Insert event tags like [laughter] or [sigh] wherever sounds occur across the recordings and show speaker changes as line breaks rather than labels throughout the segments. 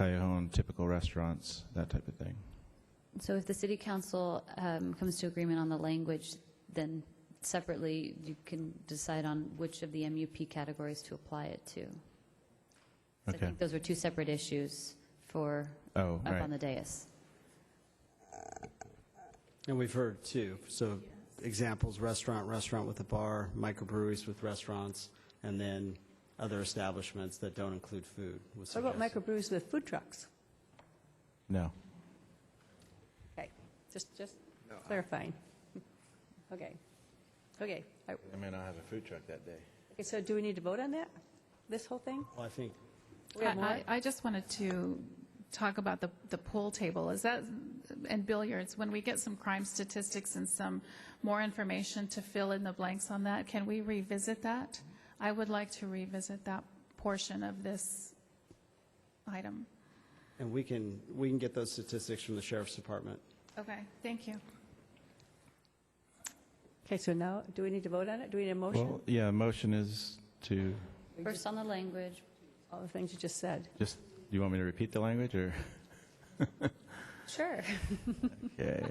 Callejon, typical restaurants, that type of thing.
So if the city council um, comes to agreement on the language, then separately, you can decide on which of the MUP categories to apply it to. 'Cause I
Okay.
think those were two separate issues for,
Oh,
up on
right.
the dais.
And we've heard too, so examples, restaurant, restaurant with a bar, microbreweries with restaurants, and then other establishments that don't include food. was
What about
suggested.
microbrews with food trucks?
No.
Okay, just, just clarifying. [laughs] Okay, okay. I-
I may not have a food truck that day.
Okay, so do we need to vote on that, this whole thing?
Well, I think,
We have
I-
more?
I, I just wanted to talk about the, the pool table, is that, and billiards, when we get some crime statistics and some more information to fill in the blanks on that, can we revisit that? I would like to revisit that portion of this item.
and we can, we can get those statistics from the sheriff's department.
Okay, thank you.
Okay, so now, do we need to vote on it? Do we need a motion?
Well, yeah, motion is to,
First on the language,
All the things you just said.
just, do you want me to repeat the language, or?
[laughs]
Sure.
Okay.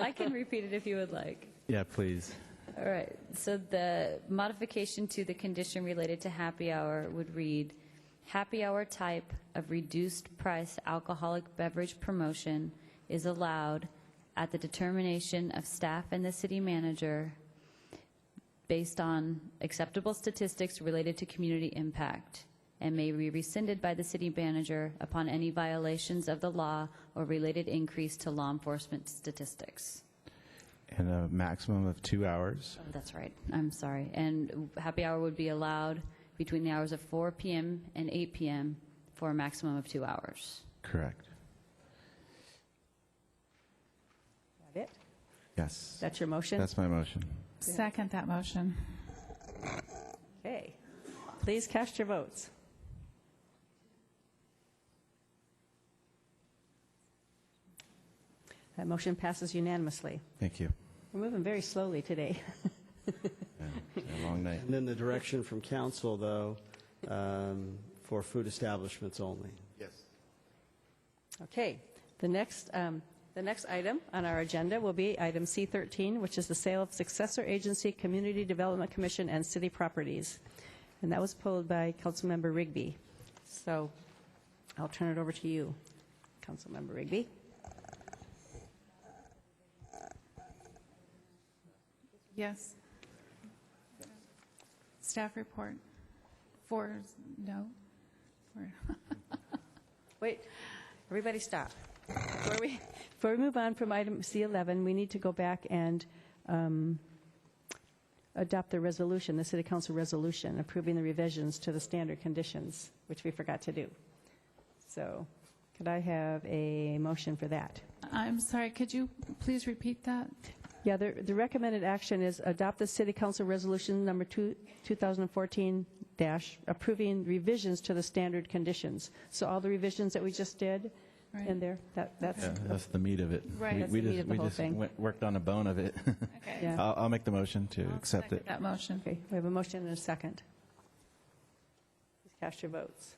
I can repeat it if you would like.
[laughs] Yeah, please.
All right, so the modification to the condition related to happy hour would read, "Happy hour type of reduced-price alcoholic beverage promotion is allowed at the determination of staff and the city manager based on acceptable statistics related to community impact, and may be rescinded by the city manager upon any violations of the law or related increase to law enforcement statistics."
And a maximum of two hours.
Oh, That's right. I'm sorry. And happy hour would be allowed between the hours of 4 PM and 8 PM for a maximum of two hours.
Correct.
That it?
Yes.
That's your motion?
That's my motion.
Second that motion.
Okay. Please cast your votes. That motion passes unanimously.
Thank you.
We're moving very slowly today. [laughs]
A long night.
And then the direction from council, though, um, for food establishments only.
Yes.
Okay, the next, um, the next item on our agenda will be item C13, which is the sale of successor agency, Community Development Commission, and city properties. And that was pulled by Councilmember Rigby. So I'll turn it over to you, Councilmember Rigby.
Yes. Staff report. Four, no? Four.
Wait, everybody stop. Before we, before we move on from item C11, we need to go back and um, adopt the resolution, the city council resolution approving the revisions to the standard conditions, which we forgot to do. So could I have a motion for that?
I'm sorry, could you please repeat that?
Yeah, the, the recommended action is adopt the city council resolution number two, 2014 dash, approving revisions to the standard conditions. So all the revisions that we just did in
Right.
there, that,
[laughs]
that's,
Yeah, that's the meat of it.
Right.
We-
That's
we
the meat
just-
of the whole
We
thing.
just went- worked on a bone of it.
Okay.
yeah.
I'll, I'll make the motion to accept it.
That motion.
Okay, we have a motion and a second. Please cast your votes.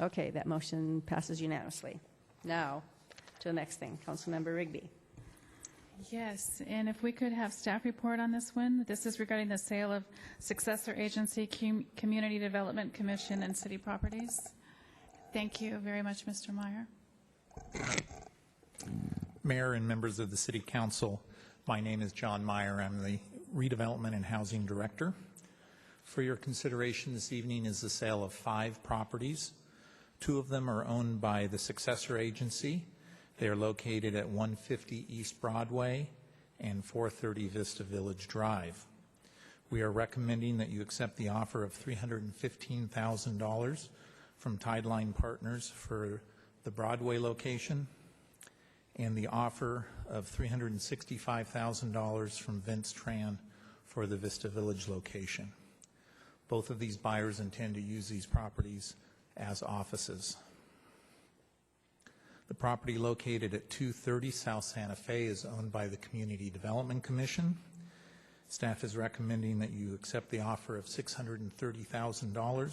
Okay, that motion passes unanimously. Now, to the next thing, Councilmember Rigby.
Yes, and if we could have staff report on this one, this is regarding the sale of successor agency, Com- Community Development Commission and city properties. Thank you very much, Mr. Meyer.
Mayor and members of the City Council, my name is John Meyer. I'm the Redevelopment and Housing Director. For your consideration this evening is the sale of five properties. Two of them are owned by the successor agency. They are located at 150 East Broadway and 430 Vista Village Drive. We are recommending that you accept the offer of $315,000 from Tideline Partners for the Broadway location and the offer of $365,000 from Vince Tran for the Vista Village location. Both of these buyers intend to use these properties as offices. The property located at 230 South Santa Fe is owned by the Community Development Commission. Staff is recommending that you accept the offer of $630,000